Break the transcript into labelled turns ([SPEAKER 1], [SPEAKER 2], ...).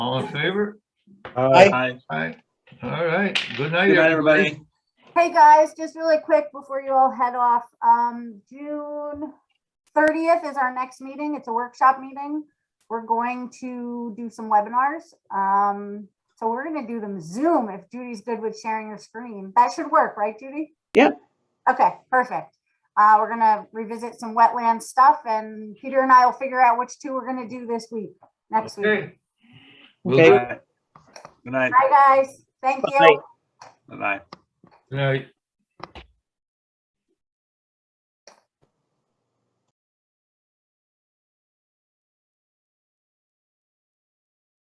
[SPEAKER 1] in favor?
[SPEAKER 2] Aye.
[SPEAKER 3] Aye.
[SPEAKER 1] Aye. All right, good night.
[SPEAKER 3] Good night, everybody.
[SPEAKER 4] Hey, guys, just really quick before you all head off, um, June thirtieth is our next meeting. It's a workshop meeting. We're going to do some webinars. Um, so we're gonna do them Zoom if Judy's good with sharing her screen. That should work, right, Judy?
[SPEAKER 2] Yep.
[SPEAKER 4] Okay, perfect. Uh, we're gonna revisit some wetland stuff and Peter and I will figure out which two we're gonna do this week, next week.
[SPEAKER 1] Okay. We'll
[SPEAKER 2] Okay.
[SPEAKER 1] do-
[SPEAKER 3] Good night.
[SPEAKER 4] Bye, guys. Thank
[SPEAKER 2] Bye.
[SPEAKER 4] you.
[SPEAKER 3] Bye-bye.
[SPEAKER 1] Good night.